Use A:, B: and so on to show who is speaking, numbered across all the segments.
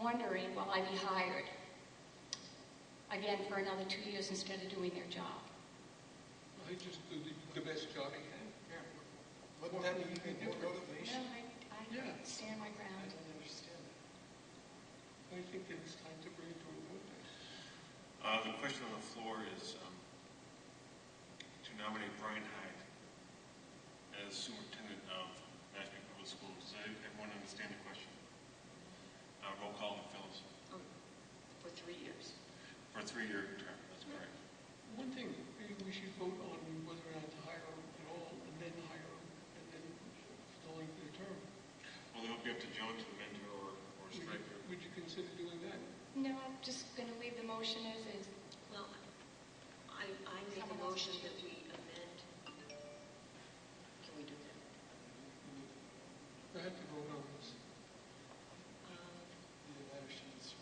A: wondering, will I be hired again for another two years instead of doing their job?
B: Well, he just did the best job he can.
C: Yeah. What more can you do? More
A: No,
C: motivation?
A: I,
B: Yeah.
A: I stand my
C: I
A: ground.
C: don't understand that.
B: I think that it's time to bring it to a vote.
D: Uh, The question on the floor is um, to nominate Brian Hyde as superintendent of Mashpee Public Schools. Does everyone understand the question? Uh, Roll call, Phillips,
A: Oh, For three years.
D: for a three-year term, that's correct.
B: One thing, maybe we should vote on whether or not to hire him at all, and then hire him, and then the length of the term.
D: Well, then it'll be up to Joan to amend her or or
B: Would you-
D: strike her.
B: Would you consider doing that?
A: No, I'm just going to leave the motion as is.
E: Well, I, I make a motion that we amend, can we do that?
B: I have to vote on this.
E: Um,
C: Either that or she needs to.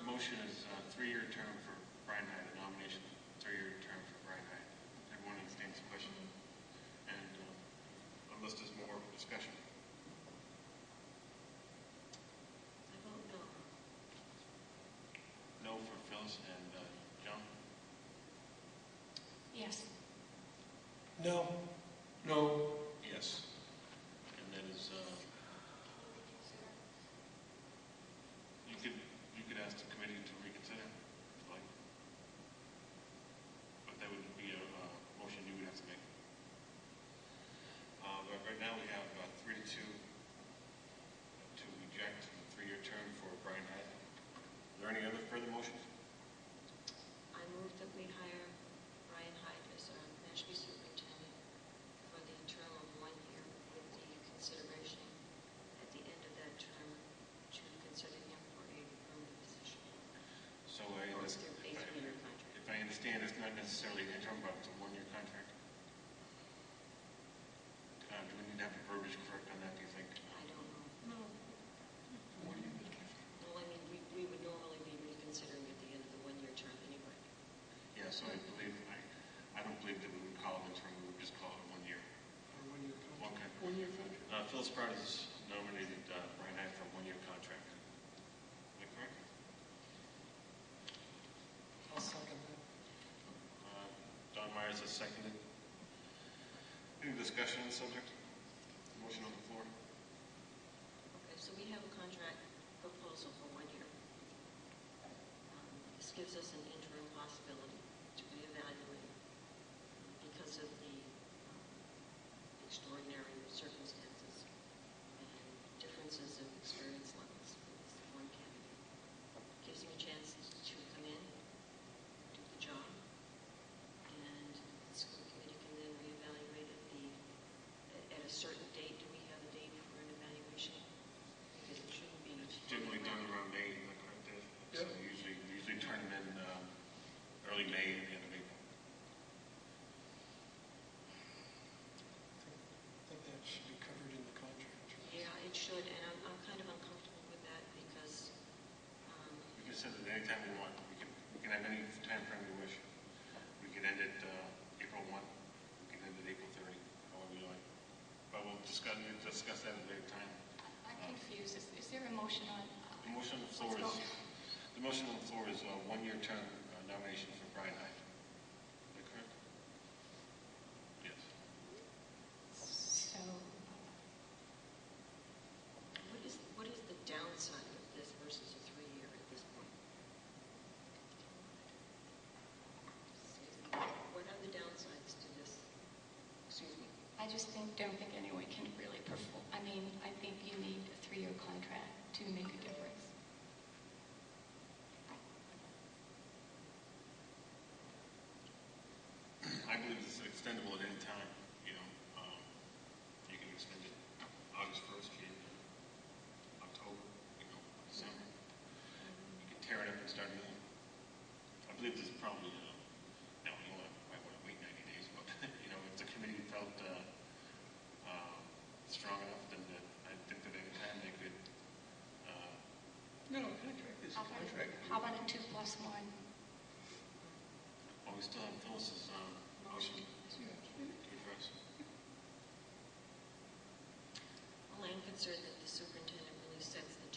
D: The motion is a three-year term for Brian Hyde, a nomination, three-year term for Brian Hyde. Everyone understands the question? And um, unless there's more discussion.
E: I vote no.
D: No for Phyllis and uh, Joan?
A: Yes.
C: No.
B: No.
D: Yes. And that is, uh, you could, you could ask the committee to reconsider, like, but that would be a uh, motion you would have to make. Uh, But right now, we have uh, three to two uh, to reject the three-year term for Brian Hyde. Are there any other further motions?
E: I move that we hire Ryan Hyde as our Mashpee superintendent for the term of one year with the consideration at the end of that term to consider him for a permanent position.
D: So I,
E: Or is there a three-year contract?
D: if I understand, it's not necessarily an interim, but it's a one-year contract. Uh, Do we need to have the verbiage correct on that, do you think?
E: I don't know.
B: No. What do you think?
E: Well, I mean, we, we would normally be reconsidering at the end of the one-year term anyway.
D: Yeah, so I believe, I, I don't believe that we would call it interim, we would just call it one year.
B: Or when you're
D: One
B: contract.
D: contract.
B: When you're contract.
D: Uh, Phil Sprout has nominated uh, Brian Hyde for a one-year contract. Is that correct?
C: I'll second that.
D: Uh, Don Myers has seconded. Any discussion on the subject? Motion on the floor?
E: Okay, so we have a contract proposal for one year. Um, This gives us an interim possibility to reevaluate because of the um, extraordinary circumstances and differences of experience levels. It's the one candidate. Gives him a chance to come in, do the job, and the school committee can then reevaluate at the, at a certain date. Do we have a date for an evaluation? Because it shouldn't be.
D: It's Generally done around May, am I correct? Dave? So
B: Yep.
D: usually, we usually turn them in um, early May and the end of April.
C: I think- I think that should be covered in the contract.
E: Yeah, it should, and I'm, I'm kind of uncomfortable with that because, um,
D: We can set it anytime we want, we can, we can have any time frame we wish. We can end it uh, April 1, we can end it April 30, however you like. But we'll discuss, we'll discuss that at a later time.
A: I- I'm confused. Is, is there a motion
D: The
A: on?
D: motion on the floor
A: Let's
D: is,
A: go.
D: the motion on the floor is a one-year term uh, nomination for Brian Hyde. Is that correct? Yes.
A: So,
E: what is, what is the downside of this versus a three-year at this point? What are the downsides to this? Excuse me.
A: I just think, don't think anyone can really perform. I mean, I think you need a three-year contract to make a difference.
D: I believe it's extendable at any time, you know, um, you can extend it August first, January, October, you know, December. You can tear it up and start it over. I believe this is probably, uh, no, you wanna, might wanna wait ninety days, but, you know, if the committee felt, uh, um, strong enough, then that, I think that any time they could, uh,
B: No, contract is a
A: How about-
B: contract.
A: How about a two plus one?
D: well, we still have Phyllis's, um, motion
B: Yeah.
D: to address.
E: Well, I'm concerned that